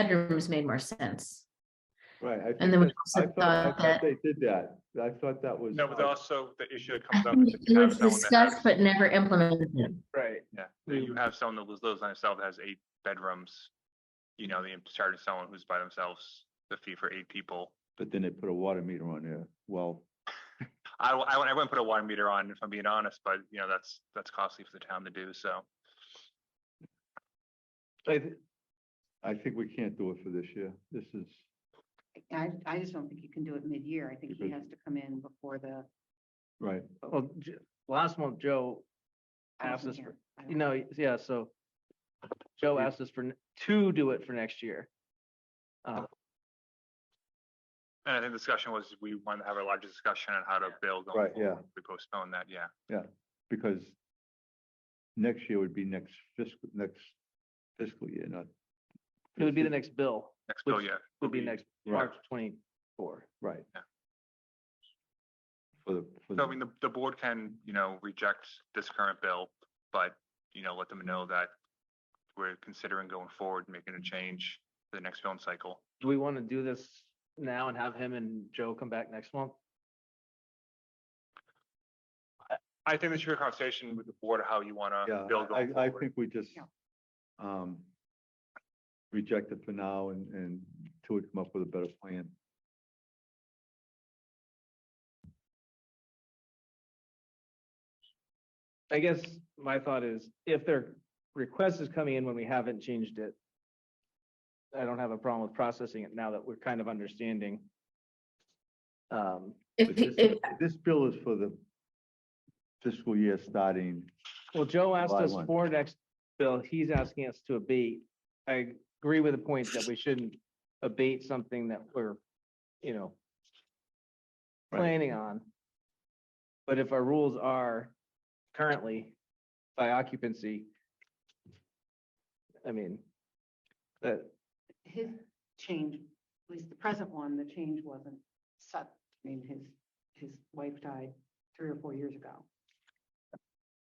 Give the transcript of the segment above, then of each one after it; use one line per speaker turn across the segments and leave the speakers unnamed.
bedrooms made more sense.
Right. I
And
think
then we
that- I
also
thought,
thought
I thought
that
they did that. I thought that was.
No, but also the issue that
I
comes up
think
is if
it
you have
was
someone that has,
discussed but never implemented.
Right.
yeah, if you have someone that lives- lives by themselves, has eight bedrooms. You know, they charge someone who's by themselves the fee for eight people.
But then they put a water meter on there. Well,
I, w- I, w- I wouldn't put a water meter on if I'm being honest, but you know, that's, that's costly for the town to do, so.
I, th- I think we can't do it for this year. This is,
I, I just don't think you can do it mid-year. I think he
Because-
has to come in before the.
right.
Well, J- last month, Joe
I don't
asked us
think
for,
I
you
don't-
know, yeah, so Joe
Yeah.
asked us for, n- to do it for next year. Uh,
And I think the discussion was, we want to have a larger discussion on how to build. going
Right, yeah.
forward. We postpone that, yeah.
Because next year would be next fiscal, next fiscal year, not.
It would be the next bill,
Next bill,
Which
yeah. will
would be next
Right.
March twenty-four.
Right.
Yeah.
For the, for
So I mean,
the,
the, the board can, you know, reject this current bill, but, you know, let them know that we're considering going forward, making a change to the next film cycle.
Do we want to do this now and have him and Joe come back next month?
I think this should be a conversation with the board, how you want to
yeah,
build
I,
going
I
forward.
think we just,
Yeah.
um, reject it for now and, and till we come up with a better plan.
I guess my thought is if their request is coming in when we haven't changed it, I don't have a problem with processing it now that we're kind of understanding. Um,
If,
But This
if,
this bill is for the fiscal year starting,
Well, Joe asked
July
us
1.
for next bill, he's asking us to abate. I agree with the point that we shouldn't abate something that we're, you know,
Right.
planning on. But if our rules are currently by occupancy, I mean, that,
His change, at least the present one, the change wasn't set. I mean, his, his wife died three or four years ago.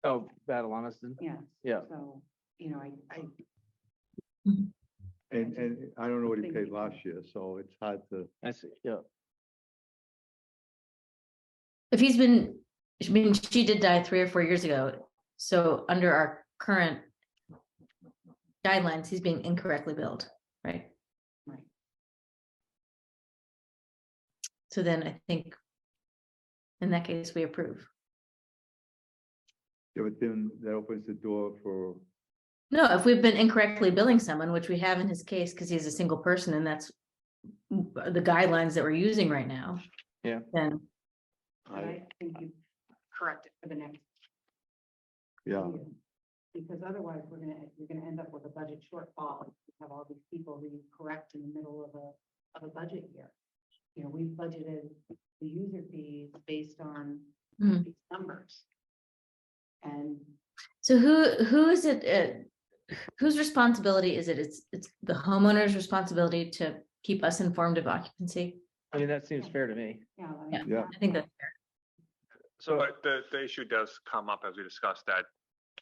oh, battle honesty,
Yeah.
yeah.
So, you know, I, I,
and,
just
and I don't know what he
think
paid
we
last year, so it's hard to,
I see, yeah.
if he's been, I mean, she did die three or four years ago. So under our current guidelines, he's being incorrectly billed, right?
right.
So then I think in that case, we approve.
yeah, but then that opens the door for,
No, if we've been incorrectly billing someone, which we have in his case, because he's a single person and that's the guidelines that we're using right now.
Yeah.
Then
But I think you correct it for the next
yeah,
year. Because otherwise, we're gonna, you're gonna end up with a budget shortfall. You Have all these people that you correct in the middle of a, of a budget year. You know, we've budgeted the user fees based on
Mhm.
these numbers. And
So who, who is it, uh, whose responsibility is it? It's, it's the homeowner's responsibility to keep us informed of occupancy?
I mean, that seems fair to me.
Yeah. I mean,
Yeah.
yeah,
I think that's fair.
So,
But the, the issue does come up as we discussed that,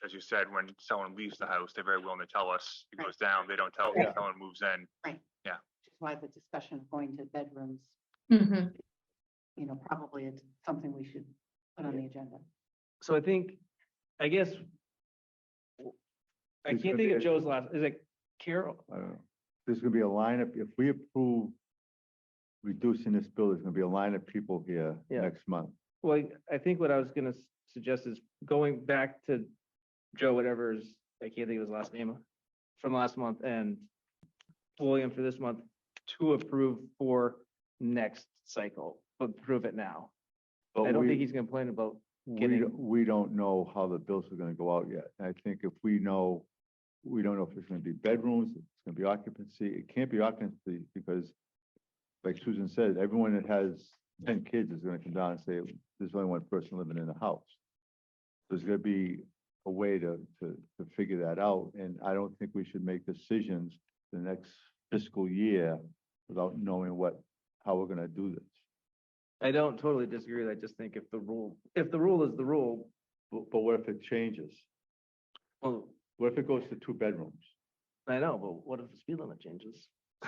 as you said, when someone leaves the house, they're very willing to tell us. It
Right.
goes down, they don't tell us,
Yeah.
someone moves in.
Which is why the discussion of going to bedrooms,
Mhm.
you know, probably it's something we should put on the agenda.
so I think, I guess. I
It's
can't
gonna be
think of
a-
Joe's last, is it Carol?
I don't know. There's gonna be a lineup, if we approve reducing this bill, there's gonna be a line of people here
Yeah.
next month.
Well, I think what I was gonna s- suggest is going back to Joe, whatever's, I can't think of his last name, from last month and William for this month to approve for next cycle, but approve it now.
But
I don't
we-
think he's gonna complain about,
We,
getting-
don't- we don't know how the bills are gonna go out yet. I think if we know, we don't know if it's gonna be bedrooms, if it's gonna be occupancy. It can't be occupancy because like Susan said, everyone that has ten kids is gonna come down and say, there's only one person living in the house. There's gonna be a way to, to, to figure that out. And I don't think we should make decisions the next fiscal year without knowing what, how we're gonna do this.
I don't totally disagree. with it, I just think if the rule, if the rule is the rule,
But, but what if it changes?
well,
What if it goes to two bedrooms?
I know, but what if the speed limit changes?